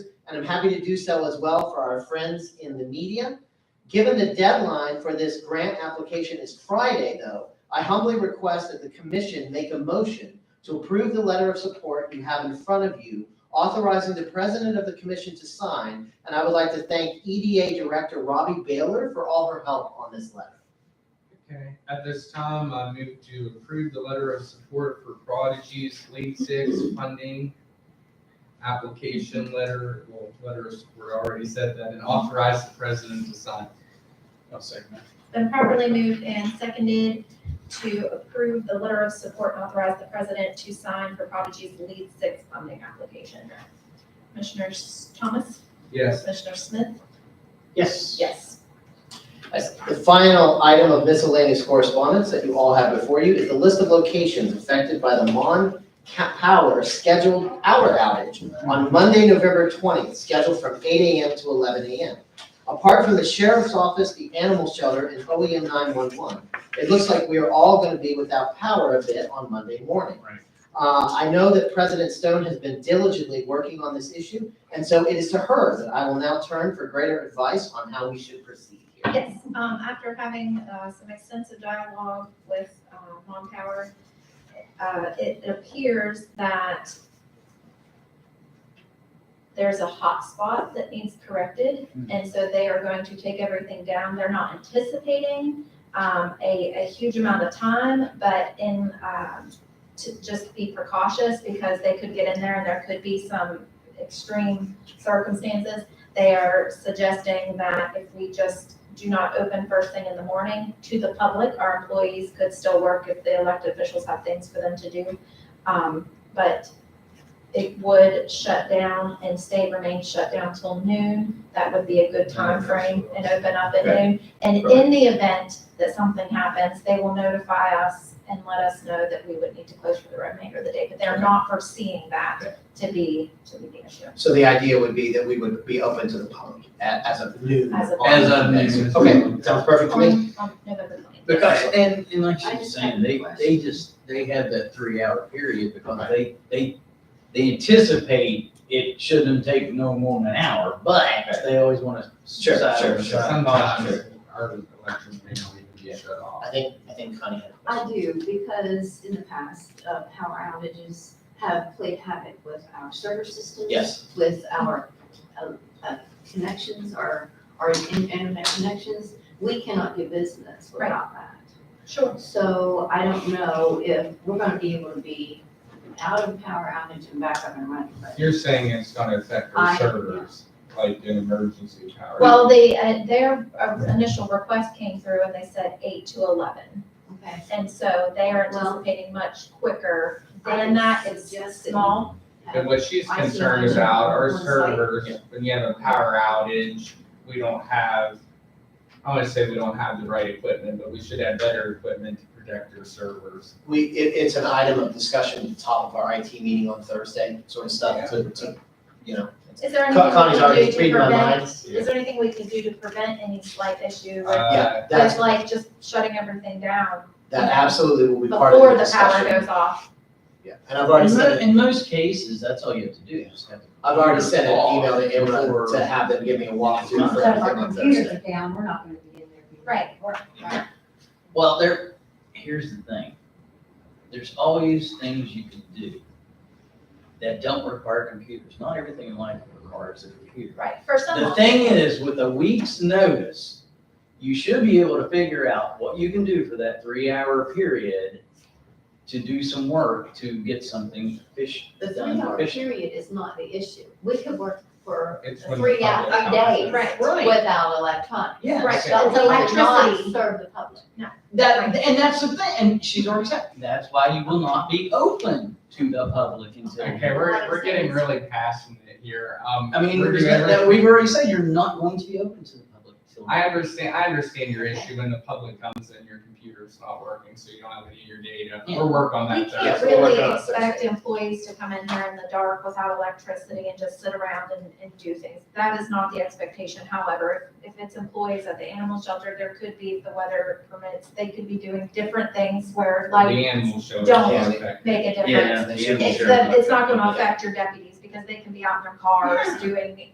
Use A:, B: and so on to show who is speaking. A: and I'm happy to do so as well for our friends in the media. Given the deadline for this grant application is Friday, though, I humbly request that the commission make a motion to approve the letter of support you have in front of you, authorizing the president of the commission to sign. And I would like to thank EDA Director Robbie Baylor for all her help on this letter.
B: Okay, at this time, I move to approve the letter of support for Prodigy's Lean Six funding application letter, well, letter of support, I already said that, and authorize the president to sign.
C: I'll second that.
D: Been properly moved and seconded to approve the letter of support and authorize the president to sign for Prodigy's Lead Six funding application. Commissioner S- Thomas?
B: Yes,
D: Commissioner Smith?
A: Yes.
D: Yes.
A: As The final item of miscellaneous correspondence that you all have before you is the list of locations affected by the Mon Ca- Power scheduled power outage on Monday, November 20th, scheduled from 8 AM to 11 AM. Apart from the sheriff's office, the animal shelter, and E OEM 911, it looks like we are all going to be without power a bit on Monday morning.
C: Right.
A: Uh, I know that President Stone has been diligently working on this issue, and so it is to her that I will now turn for greater advice on how we should proceed here.
D: Yes, um, after having, uh, some extensive dialogue with, uh, Mom Power, uh, it appears that there's a hotspot that needs corrected, and so they are going to take everything down. They're not anticipating, um, a, a huge amount of time, but in, um, to just be precautious because they could get in there and there could be some extreme circumstances they are suggesting that if we just do not open first thing in the morning to the public, our employees could still work if the elected officials have things for them to do. Um, but it would shut down and stay, remain shut down till noon. That would be a good time frame and open up at noon. And in the event that something happens, they will notify us and let us know that we would need to close for the remainder of the day. But they're not foreseeing that to be, to be the issue.
A: So the idea would be that we would be open to the public a- as of noon.
D: As of-
A: on
B: As of
A: next-
B: noon.
A: Okay, sounds perfect to me.
D: On, on November twentieth.
E: Because, and, and like
D: I
E: she was
D: just
E: saying,
D: have a
E: they,
D: question.
E: they just, they have that three-hour period because they, they, they anticipate it shouldn't take no more than an hour, but they always want to.
A: Sure, sure,
B: but
A: sure.
B: sometimes our election may not even be shut off.
A: I think, I think Connie had a
F: I
A: question.
F: do, because in the past, uh, power outages have played havoc with our server systems.
A: Yes.
F: With our, uh, uh, connections, our, our in- internet connections, we cannot do business without that.
D: Sure.
F: So I don't know if we're gonna be able to be out of power outage and back up and running, but
B: You're saying it's gonna affect
F: I-
B: our servers, like in emergency power.
D: Well, the, uh, their uh, initial request came through and they said eight to eleven.
F: okay.
D: And so they are
F: Well-
D: anticipating much quicker
F: I
D: than that. It's
F: suggest that we
D: small.
B: And
F: have-
B: what she's
F: I see
B: concerned
F: that.
B: about are
F: On site.
B: servers, when you have a power outage, we don't have, I wanna say we don't have the right equipment, but we should have better equipment to protect our servers.
A: We, it, it's an item of discussion at the top of our IT meeting on Thursday, sort of stuff to, to, you know.
D: Is there anything
A: Con- Connie's
D: we
A: already
D: can do to
A: reading my
D: prevent?
A: mind.
D: Is there anything we can do to prevent any slight issue with,
B: Uh,
A: Yeah,
D: with
A: that's,
D: like just shutting everything down
A: that absolutely will be part of
D: before
A: the
D: the power
A: discussion.
D: goes off?
A: Yeah, and I've already
E: In mo-
A: sent,
E: in most cases, that's all you have to do, just have.
A: I've already sent an email to
E: Before-
A: Imra to have them give me a walkthrough for
G: So if
A: everything
G: our
A: on
G: computers
A: Thursday.
G: are down, we're not gonna be in there. being
D: Right.
G: work.
E: Well, there, here's the thing. There's always things you can do that don't require computers. Not everything in life requires a computer.
D: Right, for some.
E: The thing is, with a week's notice, you should be able to figure out what you can do for that three-hour period to do some work, to get something fish,
F: The
E: done
F: three-hour
E: efficient.
F: period is not the issue. We could work for
B: it's when. the
F: three out,
B: public
F: three days.
B: comes in.
D: Right.
F: Without electronics.
E: Yeah.
D: Right,
B: Okay.
F: That
D: it's
F: we would not
D: electricity.
F: serve the public.
E: That, and that's the thing, and she's already said, that's why you will not be open to the public until.
B: Okay, we're, we're getting really passionate here, um.
E: I mean,
B: we're doing
E: that, that
B: everything-
E: we've already said you're not going to be open to the public until.
B: I understand, I understand your issue when the public comes in, your computer's not working, so you don't have any of your data,
E: Yeah.
B: we'll work on
D: We
B: that. though.
D: can't
A: uh, we'll work
D: really
A: on it
D: expect employees to come in here in the dark without electricity and just sit around and, and do things. That is not the expectation. However, if if it's employees at the animal shelter, there could be, if the weather permits, they could be doing different things where
B: The
D: lights
B: animal show.
D: don't
B: Okay.
D: make a difference.
E: Yeah,
A: They
E: the
A: should be
D: It's,
A: sure.
D: the- it's not gonna affect your deputies because they can be out in their cars doing